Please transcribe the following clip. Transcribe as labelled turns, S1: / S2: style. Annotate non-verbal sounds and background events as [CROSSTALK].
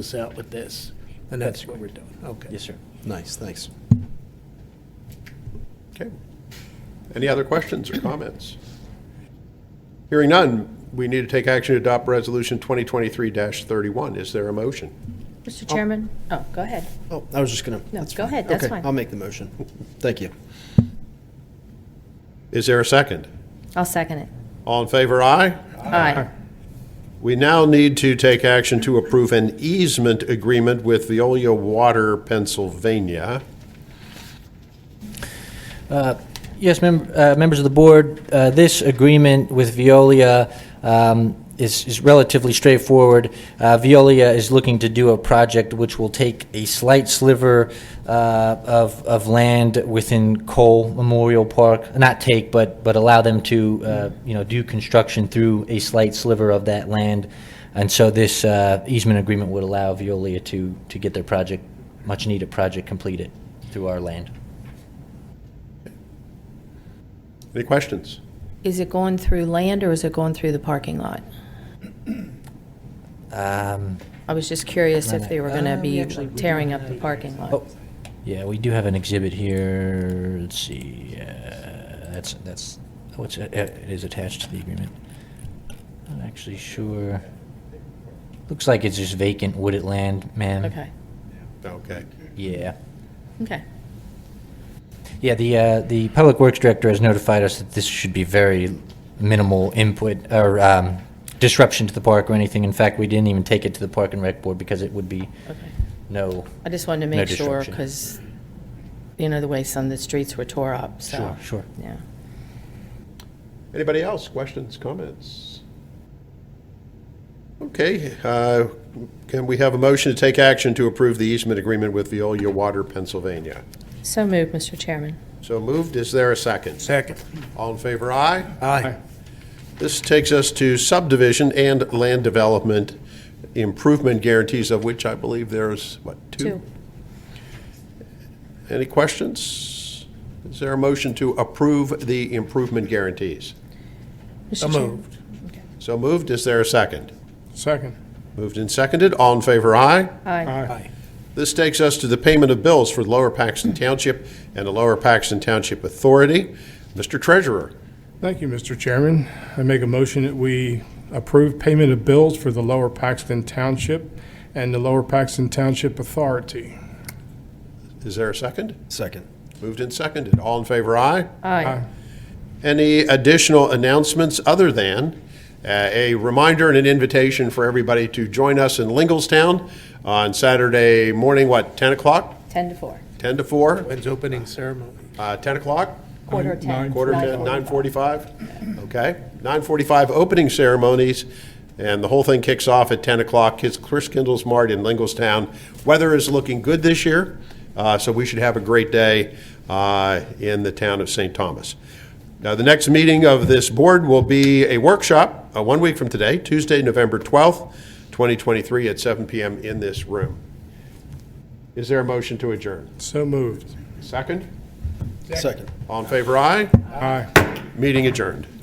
S1: us out with this, and that's what we're doing. Okay.
S2: Yes, sir.
S3: Nice, thanks.
S4: Okay. Any other questions or comments? Hearing none, we need to take action to adopt Resolution 2023-31. Is there a motion?
S5: Mr. Chairman, oh, go ahead.
S3: Oh, I was just gonna.
S5: No, go ahead, that's
S3: Okay,
S5: fine.
S3: I'll make the motion. Thank you.
S4: Is there a second?
S5: I'll second it.
S4: All in favor, aye?
S5: Aye.
S4: We now need to take action to approve an easement agreement with Veolia Water Pennsylvania.
S2: Yes, mem- uh, members of the board, uh, this agreement with Veolia um, is is relatively straightforward. Uh, Veolia is looking to do a project which will take a slight sliver uh, of of land within Cole Memorial Park, not take, but but allow them to, uh, you know, do construction through a slight sliver of that land. And so this uh, easement agreement would allow Veolia to to get their project, much-needed project completed through our land.
S4: Any questions?
S5: Is it going through land or is it going through the parking lot?
S2: [CLEARS THROAT] Um, Uh,
S5: I was just curious if they were going to be tearing up the parking lot.
S2: Oh, yeah, we do have an exhibit here. Let's see. Uh, that's that's oh, it's, uh, it is attached to the agreement. Not actually sure. Looks like it's just vacant wooded land, ma'am.
S5: Okay,
S4: Okay.
S2: Yeah.
S5: okay.
S2: Yeah, the, uh, the Public Works Director has notified us that this should be very minimal input or um, disruption to the park or anything. In fact, we didn't even take it to the Park and Rec Board because it would be
S5: Okay.
S2: no.
S5: I just wanted to
S2: No
S5: make sure,
S2: disruption.
S5: because, you know, the way some of the streets were tore up, so.
S2: Sure, sure.
S5: Yeah.
S4: Anybody else? Questions, comments? Okay, uh, can we have a motion to take action to approve the easement agreement with Veolia Water Pennsylvania?
S5: So moved, Mr. Chairman.
S4: So moved. Is there a second?
S1: Second.
S4: All in favor, aye?
S1: Aye.
S4: This takes us to subdivision and land development improvement guarantees, of which I believe there's, what, two?
S5: Two.
S4: Any questions? Is there a motion to approve the improvement guarantees?
S1: So
S5: Mr. Chair-
S1: moved.
S4: So moved. Is there a second?
S1: Second.
S4: Moved and seconded. All in favor, aye?
S5: Aye.
S1: Aye.
S4: This takes us to the payment of bills for Lower Paxton Township and the Lower Paxton Township Authority. Mr. Treasurer,
S6: Thank you, Mr. Chairman. I make a motion that we approve payment of bills for the Lower Paxton Township and the Lower Paxton Township Authority.
S4: is there a second?
S3: Second.
S4: Moved and seconded. All in favor, aye?
S5: Aye.
S4: Any additional announcements other than uh, a reminder and an invitation for everybody to join us in Linglestown on Saturday morning, what, 10 o'clock?
S5: 10 to 4.
S4: 10 to 4?
S1: When's opening ceremony?
S4: Uh, 10 o'clock?
S5: Quarter 10.
S4: Quarter to 9:45? Okay. 9:45 opening ceremonies, and the whole thing kicks off at 10 o'clock. It's Chris Kindle's Mart in Linglestown. Weather is looking good this year, uh, so we should have a great day uh, in the town of St. Thomas. Now, the next meeting of this board will be a workshop, uh, one week from today, Tuesday, November 12th, 2023, at 7 PM in this room. Is there a motion to adjourn?
S6: So moved.
S4: Second?
S3: Second.
S4: All in favor, aye?
S6: Aye.
S4: Meeting adjourned.